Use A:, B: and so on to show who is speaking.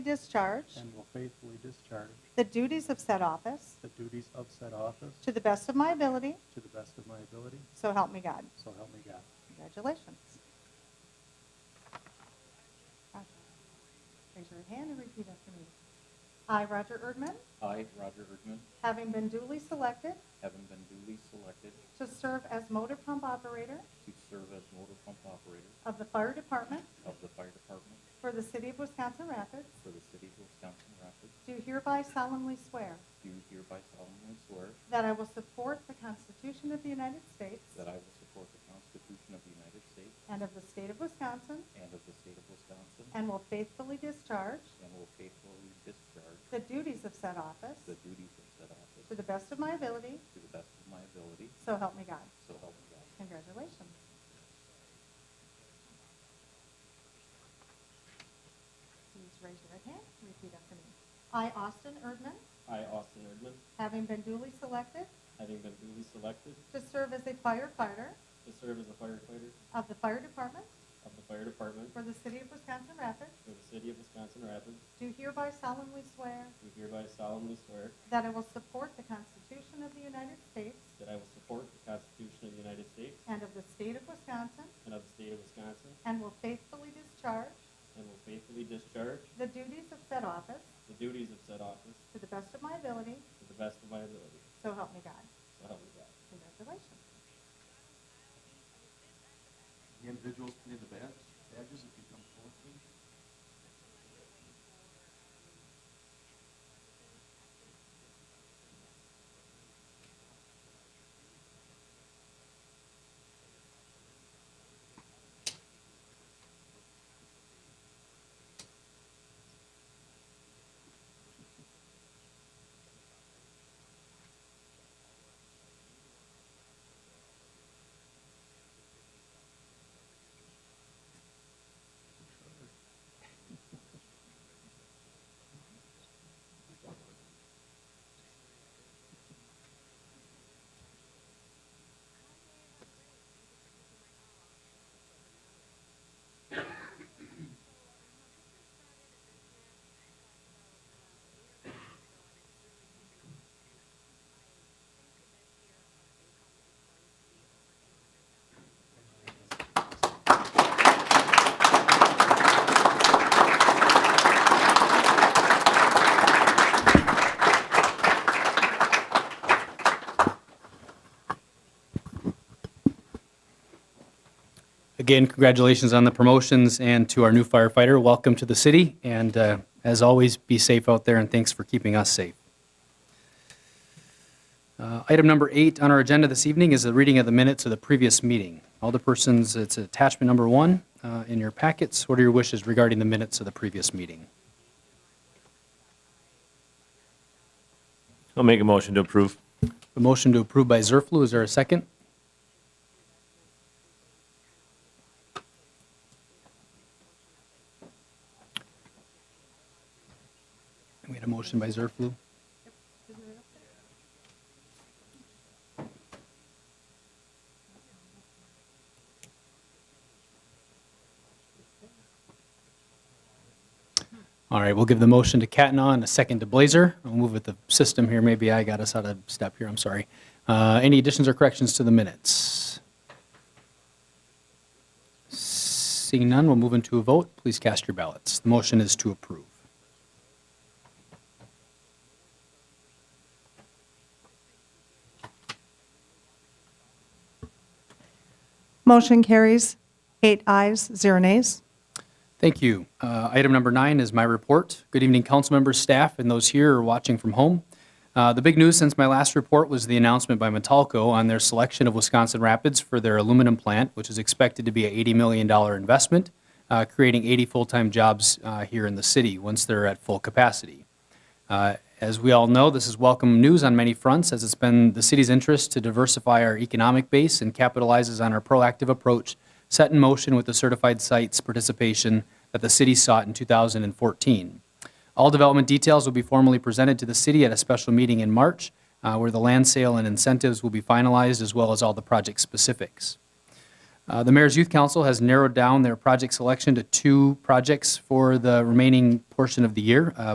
A: discharge
B: and will faithfully discharge
A: the duties of said office
B: the duties of said office
A: to the best of my ability,
B: to the best of my ability,
A: so help me God.
B: so help me God.
A: Congratulations. Raise your hand and repeat after me. I, Roger Erdman,
C: I, Roger Erdman,
A: having been duly selected
C: having been duly selected
A: to serve as motor pump operator
C: to serve as motor pump operator
A: of the fire department
C: of the fire department
A: for the city of Wisconsin Rapids,
C: for the city of Wisconsin Rapids,
A: do hereby solemnly swear
C: do hereby solemnly swear
A: that I will support the Constitution of the United States
C: that I will support the Constitution of the United States
A: and of the state of Wisconsin,
C: and of the state of Wisconsin,
A: and will faithfully discharge
C: and will faithfully discharge
A: the duties of said office
C: the duties of said office
A: to the best of my ability,
C: to the best of my ability,
A: so help me God.
C: so help me God.
A: Congratulations. Please raise your right hand, and repeat after me. I, Austin Erdman,
D: I, Austin Erdman,
A: having been duly selected
D: having been duly selected
A: to serve as a firefighter
D: to serve as a firefighter
A: of the fire department
D: of the fire department
A: for the city of Wisconsin Rapids,
D: for the city of Wisconsin Rapids,
A: do hereby solemnly swear
D: do hereby solemnly swear
A: that I will support the Constitution of the United States
D: that I will support the Constitution of the United States
A: and of the state of Wisconsin,
D: and of the state of Wisconsin,
A: and will faithfully discharge
D: and will faithfully discharge
A: the duties of said office
D: the duties of said office
A: to the best of my ability,
D: to the best of my ability,
A: so help me God.
D: so help me God.
A: Congratulations.
E: The individuals putting the badges, badges, if you come forward, please.
F: Again, congratulations on the promotions and to our new firefighter. Welcome to the city, and uh, as always, be safe out there, and thanks for keeping us safe. Uh, Item number eight on our agenda this evening is the reading of the minutes of the previous meeting. All the persons, it's attachment number one uh, in your packets. What are your wishes regarding the minutes of the previous meeting?
G: I'll make a motion to approve.
F: A motion to approve by Zerflu, is there a second? We had a motion by Zerflu. All right, we'll give the motion to Catna and a second to Blazer. I'll move with the system here, maybe I got us out of step here, I'm sorry. Uh, Any additions or corrections to the minutes? Seeing none, we'll move into a vote. Please cast your ballots. The motion is to approve.
H: Motion carries, eight ayes, zero nays.
F: Thank you. Uh, Item number nine is my report. Good evening, council members, staff, and those here or watching from home. Uh, The big news since my last report was the announcement by Metalco on their selection of Wisconsin Rapids for their aluminum plant, which is expected to be an $80 million investment, uh, creating 80 full-time jobs uh, here in the city once they're at full capacity. Uh, As we all know, this is welcome news on many fronts, as it's been the city's interest to diversify our economic base and capitalizes on our proactive approach set in motion with the certified sites participation that the city sought in 2014. All development details will be formally presented to the city at a special meeting in March, uh, where the land sale and incentives will be finalized, as well as all the project specifics. Uh, Uh, The Mayor's Youth Council has narrowed down their project selection to two projects for the remaining portion of the year. Uh,